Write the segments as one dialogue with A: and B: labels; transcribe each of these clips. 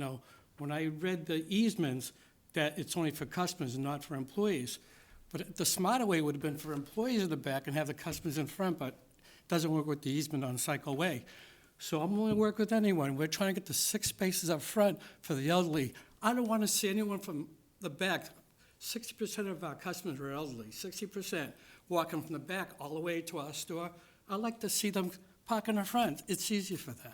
A: know, when I read the easements, that it's only for customers and not for employees. But the smarter way would have been for employees in the back and have the customers in front, but it doesn't work with the easement on Cycle Way. So I'm willing to work with anyone. We're trying to get the six spaces up front for the elderly. I don't want to see anyone from the back. Sixty percent of our customers are elderly, sixty percent walking from the back all the way to our store. I like to see them park in the front. It's easier for them.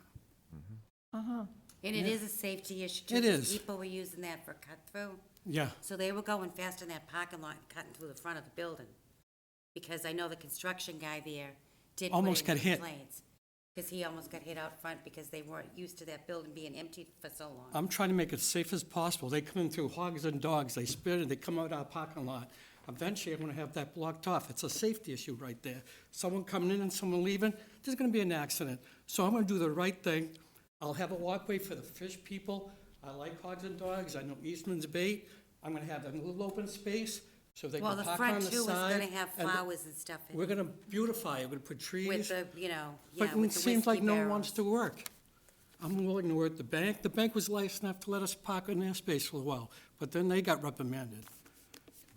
B: And it is a safety issue too.
A: It
B: 'cause
A: is.
B: People were using that for cut through,
A: Yeah.
B: so they were going fast in that parking lot, cutting through the front of the building. Because I know the construction guy there did put
A: Almost
B: in
A: got hit.
B: complaints. Because he almost got hit out front because they weren't used to that building being empty for so long.
A: I'm trying to make it safe as possible. They come in through hogs and dogs, they spit it, they come out our parking lot. Eventually, I'm gonna have that blocked off. It's a safety issue right there. Someone coming in and someone leaving, there's gonna be an accident. So I'm gonna do the right thing. I'll have a walkway for the fish people. I like hogs and dogs, I know Eastman's bait. I'm gonna have a little open space so they
B: Well,
A: can
B: the
A: park on
B: front
A: the
B: too is
A: side.
B: gonna have
A: and
B: flowers and stuff in
A: We're
B: it,
A: gonna beautify it, we're gonna put trees.
B: with the, you know, yeah,
A: But it
B: with the
A: seems
B: whiskey
A: like no one wants
B: barrels.
A: to work. I'm willing to work at the bank. The bank was nice enough to let us park in their space for a while, but then they got reprimanded.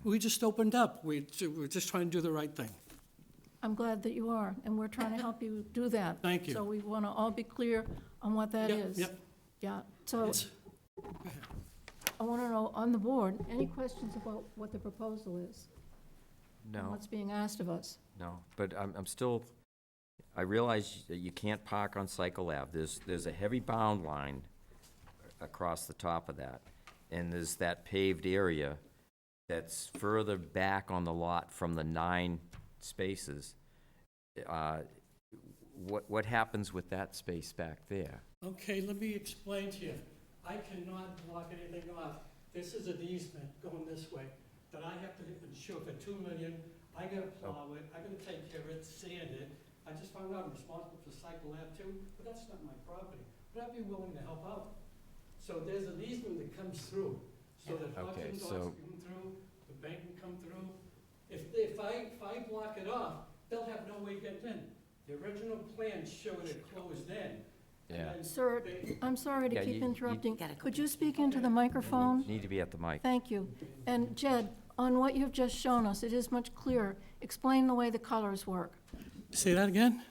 A: We just opened up. We, we're just trying to do the right thing.
C: I'm glad that you are, and we're trying to help you do that.
A: Thank you.
C: So we want to all be clear on what that
A: Yep,
C: is.
A: yep.
C: Yeah, so
A: It's-
C: I want to know, on the board, any questions about what the proposal is? and
D: No,
C: What's being asked of us?
D: no, but I'm, I'm still, I realize that you can't park on Cycle Ave. There's, there's a heavy bound line across the top of that. And there's that paved area that's further back on the lot from the nine spaces. Uh, What, what happens with that space back there?
A: Okay, let me explain to you. I cannot block anything off. This is an easement going this way that I have to insure for two million. I gotta plow it, I gotta take care of it, sand it. I just found out I'm responsible for cycle lab too, but that's not my property. But I'd be willing to help out. So there's an easement that comes through, so that hogs
D: Okay,
A: and dogs
D: so-
A: can come through, the bank can come through. If, if I, if I block it off, they'll have no way getting in. The original plan showed it closed in. and
D: Yeah.
A: then
C: Sir,
A: they-
C: I'm sorry to
D: Yeah,
C: keep
D: you- you-
C: interrupting.
B: Gotta go
C: Could you speak into the microphone?
D: Need to be at the mic.
C: Thank you. And Jed, on what you've just shown us, it is much clearer. Explain the way the colors work.
A: Say that again?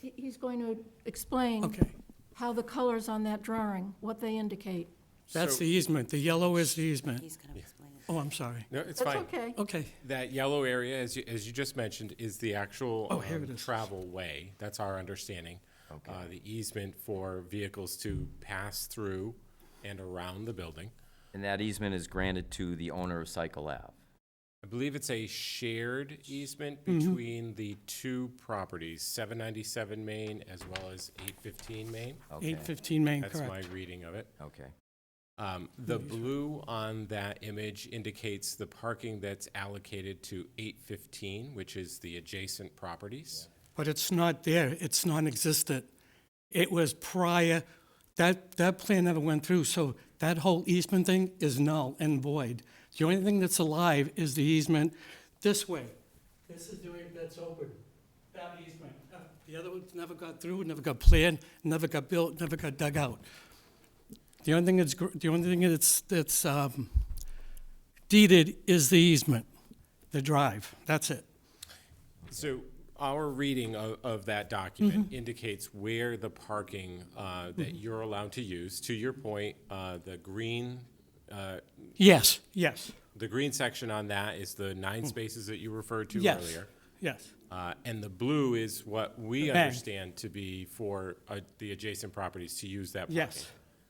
C: He- He's going to explain
A: Okay,
C: how the colors on that drawing, what they indicate.
A: that's the easement. The yellow is the easement.
B: He's gonna explain it.
A: Oh, I'm sorry.
E: No, it's
C: That's
E: fine.
C: okay.
A: Okay,
E: That yellow area, as you, as you just mentioned, is the actual
A: Oh, here
E: um,
A: it is.
E: travel way. That's our understanding. Okay. Uh, the easement for vehicles to pass through and around the building.
D: And that easement is granted to the owner of Cycle Ave.
E: I believe it's a shared easement
A: Mm-hmm.
E: between the two properties, 797 Main as well as 815 Main.
D: Okay,
A: eight fifteen Main,
E: That's my
A: correct.
E: reading of it.
D: okay.
E: Um, The blue on that image indicates the parking that's allocated to 815, which is the adjacent properties.
A: But it's not there. It's non-existent. It was prior, that, that plan never went through, so that whole easement thing is null and void. The only thing that's alive is the easement this way. This is the way that's open, that easement. Uh, The other ones never got through, never got planned, never got built, never got dug out. The only thing that's, gr- the only thing that's, that's um, deeded is the easement, the drive, that's it.
E: So our reading of, of that document indicates where the parking uh, that you're allowed to use, to your point, uh, the green, uh,
A: Yes, yes,
E: the green section on that is the nine spaces that you referred to
A: yes,
E: earlier.
A: yes.
E: Uh, And the blue is what we
A: The bank.
E: understand to be for uh, the adjacent properties to use that parking.
A: Yes.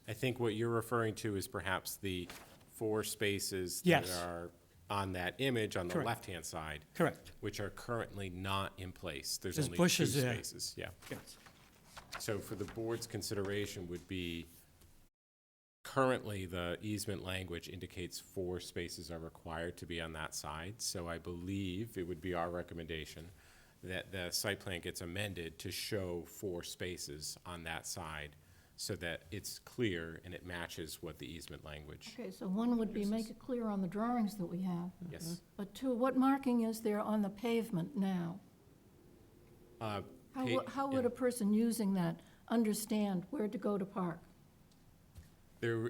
E: I think what you're referring to is perhaps the four spaces that
A: Yes.
E: are on that image on the
A: Correct.
E: left-hand side.
A: Correct.
E: Which are currently not in place. There's
A: There's
E: only two
A: bushes there.
E: spaces. Yeah. So for the board's consideration would be, currently, the easement language indicates four spaces are required to be on that side. So I believe it would be our recommendation that the site plan gets amended to show four spaces on that side so that it's clear and it matches what the easement language.
C: Okay, so one would be make it clear on the drawings that we have.
E: Yes.
C: But two, what marking is there on the pavement now?
E: Uh,
C: How,
E: pa-
C: wo- how would
E: yeah.
C: a person using that understand where to go to park?
E: There,